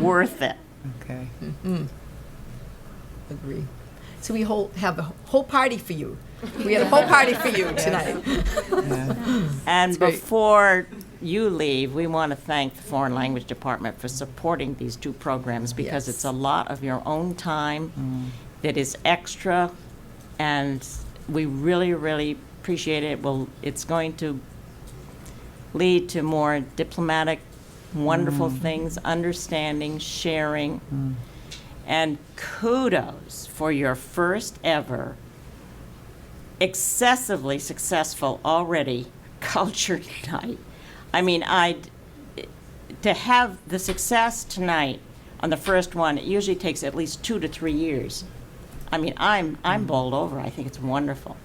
worth it. Okay. Agree. So we whole, have a whole party for you. We had a whole party for you tonight. Yeah. And great. before you leave, we want to thank the Foreign Language Department for supporting these two programs because Yes. Mm-hmm. it's a lot of your own time that is extra, and we really, really appreciate it. Well, it's going to lead to more diplomatic, wonderful Mm. things, understanding, sharing. And kudos for your first ever excessively successful already culture night. I mean, I to have the success tonight on the first one, it usually takes at least 2 to 3 years. I mean, I'm I'm bowled over. I think it's wonderful.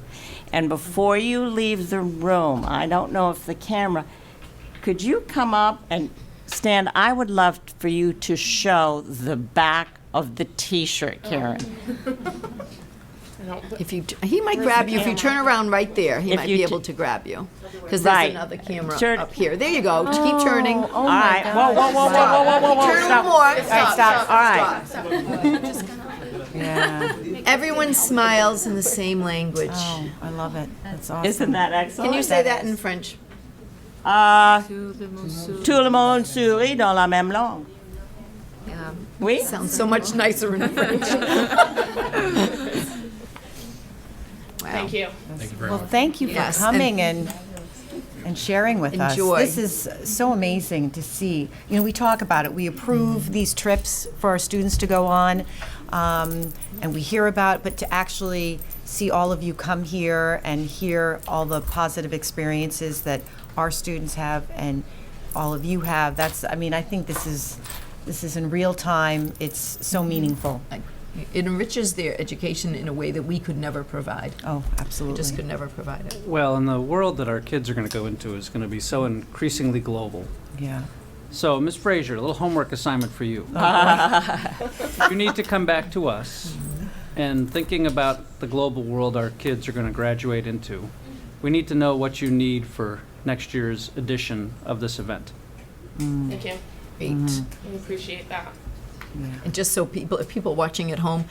And before you leave the room, I don't know if the camera could you come up and stand? I would love for you to show the back of the t-shirt, Karen. If you, t- he might grab you, if you turn around right there, he If might you be t- able to grab you. Because Right. there's another camera Turn- Oh, up here. There you go, Just keep turning. All right. Whoa, whoa, whoa, whoa, whoa, whoa, whoa, Turn a little stop. more. Stop, All right. Yeah. Everyone smiles in the same language. Oh, I love it. That's awesome. Isn't Oh, that excellent? Can you say that in French? Uh, tout le monde sourit dans la même langue. Oui? Sounds so much nicer in French. Wow. you. Well, thank you for Yes, and- coming and and sharing with Enjoy. us. This is so amazing to see. You know, we talk about it. We Mm-hmm. approve these trips for our students to go on, um, and we hear about, but to actually see all of you come here and hear all the positive experiences that our students have and all of you have. That's. I mean, I think this is this is in real time. It's so meaningful. Like, It enriches their education in a way that we could never provide. Oh, absolutely. Just could never provide it. Well, and the world that our kids are going to go into is going to be so increasingly global. yeah. So, Ms. Frazier, a little homework assignment for you. you need to come back to us and thinking about the global world our kids are going to graduate into. We need to know what you need for next year's edition of this event. Thank you. Great. We appreciate that. And just so people, if people watching at home,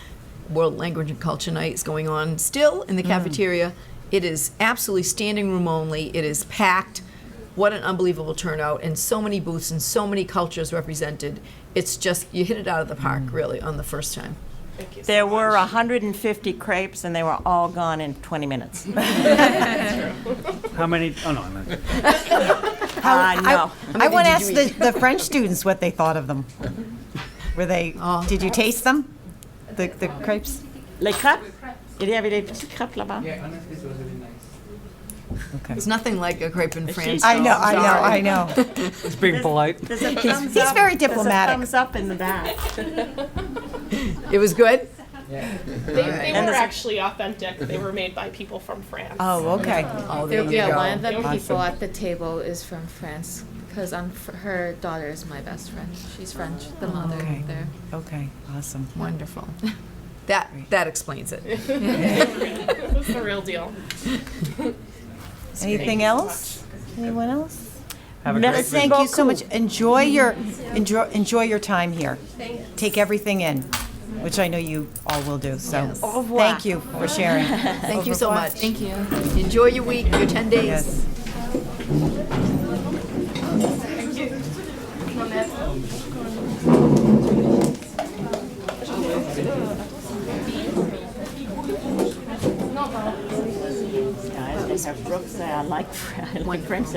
World Language and Culture Night is going on still in the cafeteria. It is absolutely standing room only. It is packed. What an unbelievable turnout, and so many booths and so many cultures represented. It's just, you hit it out of the park, really, on the first time. Thank you. so There much. were 150 crepes and they were all gone in 20 minutes. How many? Oh, no, I meant. I know. I want to did ask you the, the French students what they thought of them. Were they, Oh. did you taste them? The, the crepes? Les crêpes? Il y avait des petites crêpes là-bas. It's nothing like a crepe in France. I know, I know, I know. It's being polite. There's a He's- thumbs he's up- very there's a diplomatic. thumbs up in the back. It was good? They, they were actually authentic. They were made by people from France. Oh, okay. Oh, there you Yeah, one go. of the people at the table is from France because I'm fr- her daughter is my best friend. She's French, the mother Okay. there. Okay, awesome. Wonderful. That, that explains it. It was the real deal. Anything else? Anyone else? Have a great Merci. visit. Thank you so much. Enjoy your, enjoy, enjoy your time here. Take everything in, which I know you all will do, so. Thank you for sharing. Thank you so much. Thank you. Enjoy your week, your 10 days. Yes. Guys, they have Brooks. I like, I like French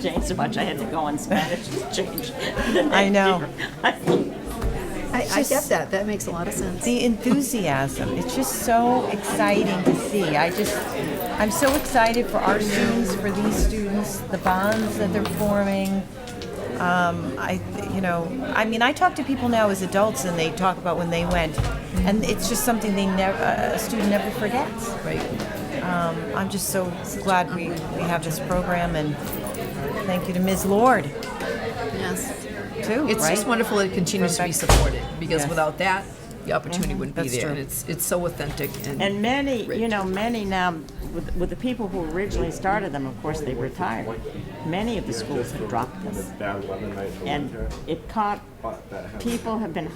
James so much I had to go on Spanish to change. the I name. know. I, I get that. That makes a lot of sense. the enthusiasm. It's just so exciting to see. I just, I'm so excited for our students, for these students, the bonds that they're forming. Um, I, you know, I mean, I talk to people now as adults, and they talk about when they went, and it's just something they never, a student never forgets. Right. Um, I'm just so glad we, we have this program, and thank you to Ms. Lord Yes. too. It's right? just wonderful that it continues to be Perfect. supported, because Yes. Mm-hmm. without that, the opportunity wouldn't be That's there. true. And it's, it's so authentic and, And many, you know, many now with, with the people who originally started them, of course, they retired. Many of the schools have dropped them. Bad weather night for And winter, it caught, but that has. people have been